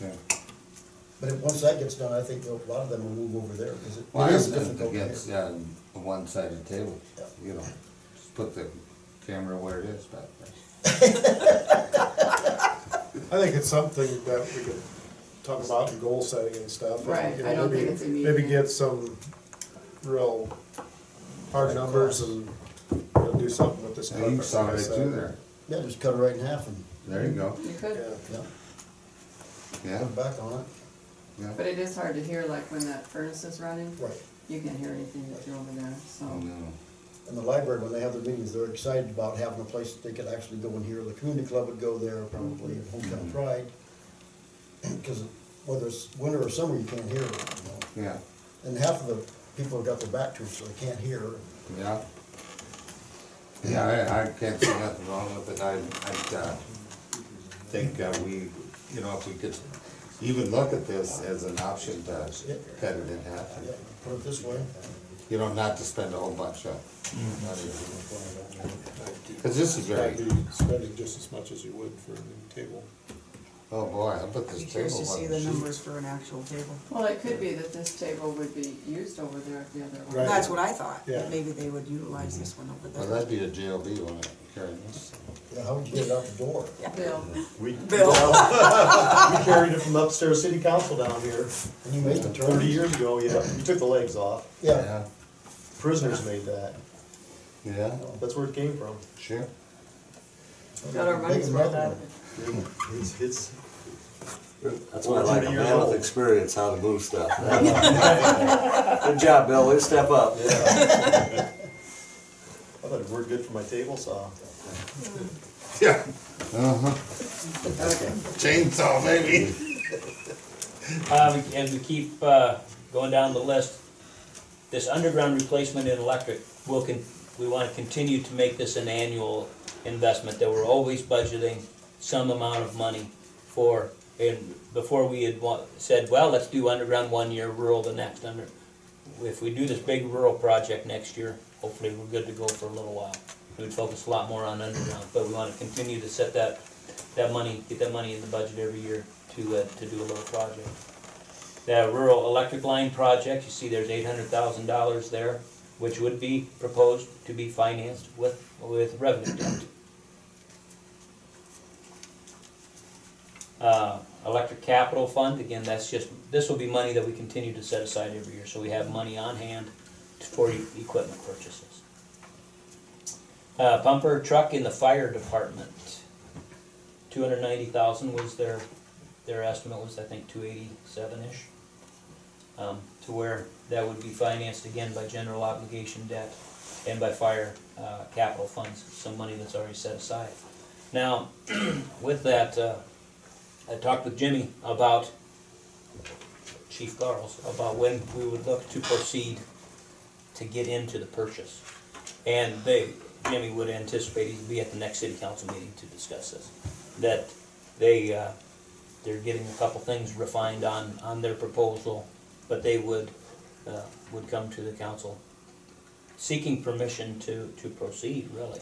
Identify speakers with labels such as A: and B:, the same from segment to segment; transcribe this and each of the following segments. A: yeah.
B: But if- once that gets done, I think a lot of them will move over there, because it
A: Well, I
B: it is
A: don't think
B: difficult
A: it
B: here.
A: gets on a one-sided table,
B: Yeah.
A: you know, just put the camera where it is back there.
C: I think it's something that we could talk about in goal setting and stuff.
D: Right,
C: You know,
D: I don't
C: maybe-
D: think it's immediate.
C: Maybe get some real hard numbers and you know, do something with this.
A: Now, you
C: carpet,
A: saw
C: like I
A: right
C: said.
A: through there,
B: Yeah, just cut it right in half and,
A: there you go,
D: You
C: Yeah,
D: could,
B: yeah,
A: yeah,
B: put it back on
A: yeah.
D: but it is hard to hear, like when that furnace is running,
B: it. Right.
D: you can't hear anything if you're over there, so.
A: Oh, no,
B: And the library, when they have their meetings, they're excited about having a place that they could actually go in here. The community club would go there probably, and Hometown
A: Mhm.
B: Pride. Because whether it's winter or summer, you can't hear, you know.
A: yeah,
B: And half of the people have got their back to it, so they can't hear.
A: yeah. Yeah, I, I can't see nothing wrong with it, I, I, uh, think, uh, we, you know, if we could even look at this as an option to cut it in half.
B: Yeah, Put it this way.
A: You know, not to spend a whole bunch
B: Mm-hmm.
A: of, cause this is very,
E: I'd be spending just as much as you would for a new table.
A: oh boy, I put
F: Be
A: this
F: curious
A: table
F: to
A: on
F: see the
A: the sheet.
F: numbers for an actual table.
D: Well, it could be that this table would be used over there at the other one.
C: Right.
F: That's what I thought,
C: Yeah.
F: that maybe they would utilize this one over
A: Well,
F: there.
A: that'd be a JLB one, carrying this.
B: Yeah, how would you get it out the door?
D: Bill,
G: We, we
F: Bill.
G: carried it from upstairs city council down here
B: And you make the turn.
G: thirty years ago, yeah, we took the legs off,
B: Yeah,
G: prisoners made that,
A: Yeah,
G: that's where it came from.
A: sure.
D: got our money's
B: Make
D: worth
B: another
D: out
B: one.
D: of it.
G: It's, it's,
H: That's what I like, a
G: 30 years
H: man
G: old.
H: with experience how to move stuff. Good job, Bill, let's step up.
G: I thought it worked good for my table saw.
A: Yeah. Uh-huh. Chainsaw, maybe.
I: Um, and we keep, uh, going down the list, this underground replacement in electric, we'll con, we wanna continue to make this an annual investment, that we're always budgeting some amount of money for, and before we had wa- said, well, let's do underground one year, rural the next, under, if we do this big rural project next year, hopefully we're good to go for a little while. We'd focus a lot more on underground, but we wanna continue to set that, that money, get that money in the budget every year to, uh, to do a little project. The rural electric line project, you see there's eight hundred thousand dollars there, which would be proposed to be financed with, with revenue debt. Uh, electric capital fund, again, that's just, this will be money that we continue to set aside every year, so we have money on hand for e- equipment purchases. Uh, bumper truck in the fire department, two hundred ninety thousand was their their estimate was, I think, two eighty-seven-ish. Um, to where that would be financed again by general obligation debt and by fire, uh, capital funds, some money that's already set aside. Now, with that, uh, I talked with Jimmy about, Chief Garles, about when we would look to proceed to get into the purchase. And they, Jimmy would anticipate he'd be at the next city council meeting to discuss this. That they, uh, they're getting a couple things refined on, on their proposal, but they would, uh, would come to the council seeking permission to, to proceed, really.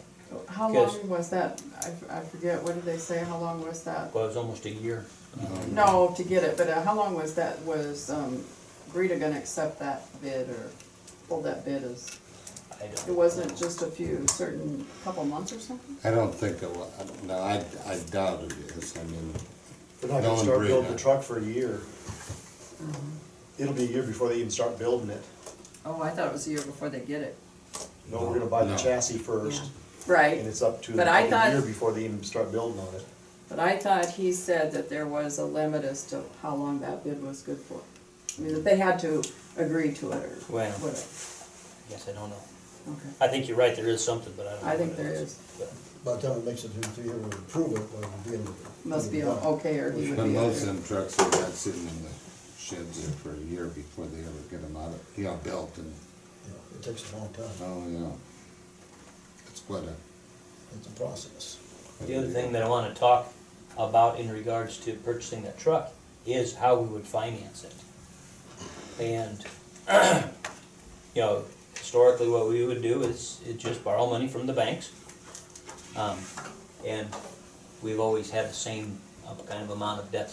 D: How
I: Yes.
D: long was that, I, f- I forget, what did they say, how long was that?
I: Well, it was almost a year.
D: No, to get it, but uh, how long was that, was, um, Greta gonna accept that bid or hold that bid as?
I: I don't.
D: It wasn't just a few, certain, couple months or something?
A: I don't think it will, I don't- no, I, I doubt it is, I mean,
G: They're
A: No
G: not gonna
A: one
G: start
A: breathe
G: building
A: that.
G: the truck for a year.
D: Mm-hmm.
G: It'll be a year before they even start building it.
D: Oh, I thought it was a year before they get it.
G: No, we're gonna buy the
A: No.
G: chassis first, and
D: Right,
G: it's up to
D: But I
G: like
D: thought-
G: a year before they even start building on it.
D: but I thought he said that there was a limit as to how long that bid was good for. I mean, that they had to agree to it or
I: Well.
D: whatever,
I: Yes, I don't know.
D: okay.
I: I think you're right, there is something, but I don't know.
D: I think
I: what
D: there
I: it is.
D: is,
B: By the time it makes it through three years, we approve it, well, it'll be in the.
D: must be a- okay or he would
A: but
D: be
A: most of
D: okay.
A: them trucks are got sitting in the sheds there for a year before they ever get them out of, you know, built and,
B: You know, It takes a long time.
A: oh, yeah. It's quite a.
B: It's a process.
I: The other thing that I wanna talk about in regards to purchasing that truck is how we would finance it. And, you know, historically, what we would do is, is just borrow money from the banks. Um, and we've always had the same uh, kind of amount of debt